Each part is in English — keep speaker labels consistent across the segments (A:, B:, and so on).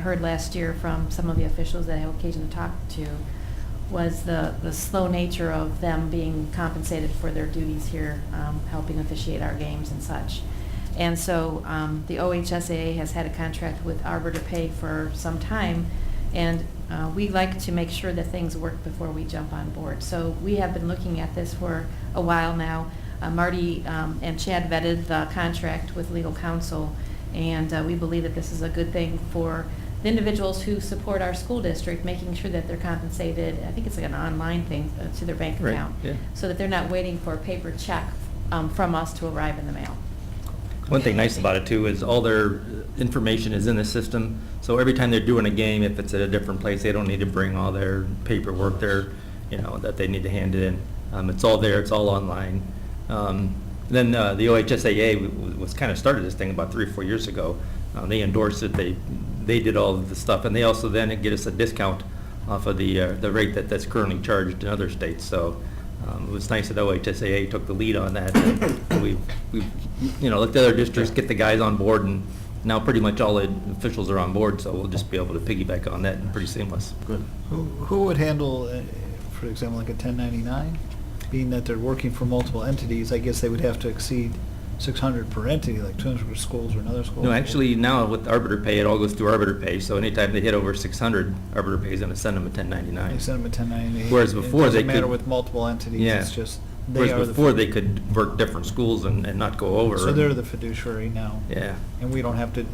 A: heard last year from some of the officials that I had occasion to talk to was the, the slow nature of them being compensated for their duties here, um, helping officiate our games and such. And so um, the OHSAA has had a contract with Arbor to Pay for some time, and uh, we like to make sure that things work before we jump on board. So we have been looking at this for a while now. Uh, Marty um, and Chad vetted the contract with legal counsel, and uh, we believe that this is a good thing for the individuals who support our school district, making sure that they're compensated, I think it's like an online thing, uh, to their bank
B: Right,
A: account.
B: yeah.
A: So that they're not waiting for a paper check um, from us to arrive in the mail.
B: One thing nice about it too is all their information is in the system, so every time they're doing a game, if it's at a different place, they don't need to bring all their paperwork there, you know, that they need to hand in. Um, it's all there, it's all online. Um, then, uh, the OHSAA w- w- was kind of started this thing about three or four years ago. Uh, they endorsed it, they, they did all of the stuff, and they also then get us a discount off of the, uh, the rate that, that's currently charged in other states, so, um, It was nice that OHSAA took the lead on that. We've, we've, you know, let the other districts get the guys on board, and now pretty much all the officials are on board, so we'll just be able to piggyback on that and pretty seamless.
C: Good. Who, who would handle, uh, for example, like a 1099? Being that they're working for multiple entities, I guess they would have to exceed 600 per entity, like 200 for schools or another school.
B: No, actually, now with arbiter pay, it all goes through arbiter pay, so anytime they hit over 600, arbiter pay is going to send them a
C: They
B: 1099.
C: send them a 1099.
B: Whereas before they
C: It doesn't matter
B: could-
C: with multiple entities,
B: Yeah.
C: it's just, they are
B: Whereas
C: the.
B: before, they could work different schools and, and not go over.
C: So they're the fiduciary now.
B: Yeah,
C: And we don't have to,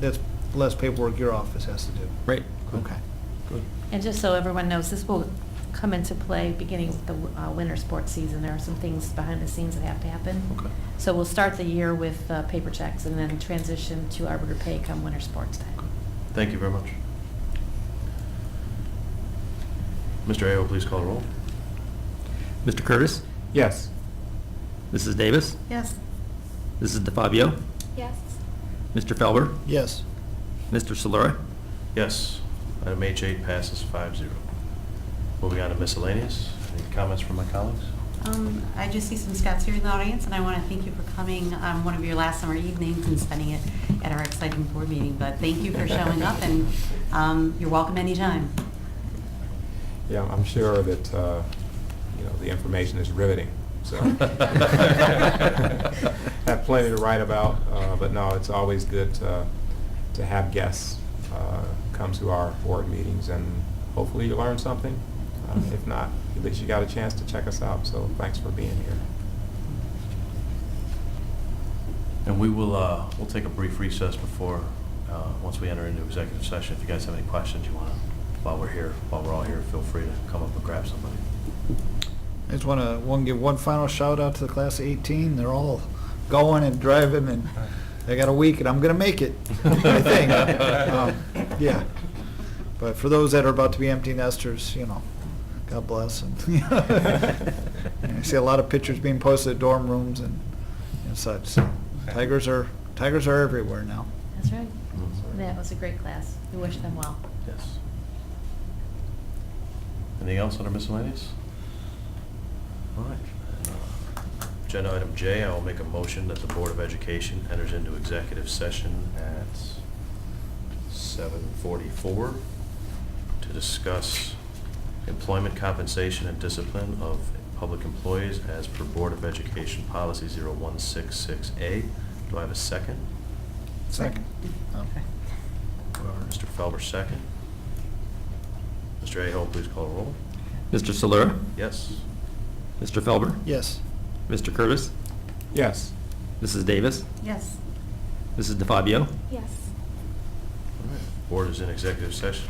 C: that's less paperwork your office has to do.
B: right.
C: Okay.
A: And just so everyone knows, this will come into play beginning with the uh, winter sports season. There are some things behind the scenes that have to happen.
B: Okay.
A: So we'll start the year with uh, paper checks and then transition to arbiter pay come winter sports time.
D: Thank you very much. Mr. Ayo, please call the roll.
B: Mr. Curtis?
E: Yes.
B: Mrs. Davis?
A: Yes.
B: This is DeFabio?
A: Yes.
B: Mr. Felber?
C: Yes.
B: Mr. Solera?
D: Yes, item H8 passes 5-0. Moving on to miscellaneous. Any comments from my colleagues?
F: Um, I just see some Scots here in the audience, and I want to thank you for coming on one of your last summer evenings and spending it at our exciting board meeting. But thank you for showing up, and um, you're welcome anytime.
E: Yeah, I'm sure that, uh, you know, the information is riveting, so. Have plenty to write about, uh, but no, it's always good to to have guests uh, come to our board meetings, and hopefully you learn something. Uh, If not, at least you got a chance to check us out, so thanks for being here.
D: And we will, uh, we'll take a brief recess before, uh, once we enter into executive session. If you guys have any questions you want to, while we're here, while we're all here, feel free to come up and grab somebody.
C: I just want to, one, give one final shout out to the class of 18. They're all going and driving and I got a week and I'm going to make it, I think. Um, Yeah. But for those that are about to be empty nesters, you know, God bless. And I see a lot of pictures being posted at dorm rooms and, and such. So Tigers are, tigers are everywhere now.
A: That's right. That was a great class. We wish them well.
D: Yes. Anything else under miscellaneous? All right. Uh, Agenda item J, I will make a motion that the Board of Education enters into executive session at 7:44 to discuss employment compensation and discipline of public employees as per Board of Education Policy 0166A. Do I have a second?
C: Second. Um, Okay.
D: Mr. Felber, second. Mr. Aho, please call a roll.
B: Mr. Solera?
D: Yes.
B: Mr. Felber?
C: Yes.
B: Mr. Curtis?
E: Yes.
B: Mrs. Davis?
F: Yes.
B: Mrs. DeFabio?
G: Yes.
D: Board is in executive session.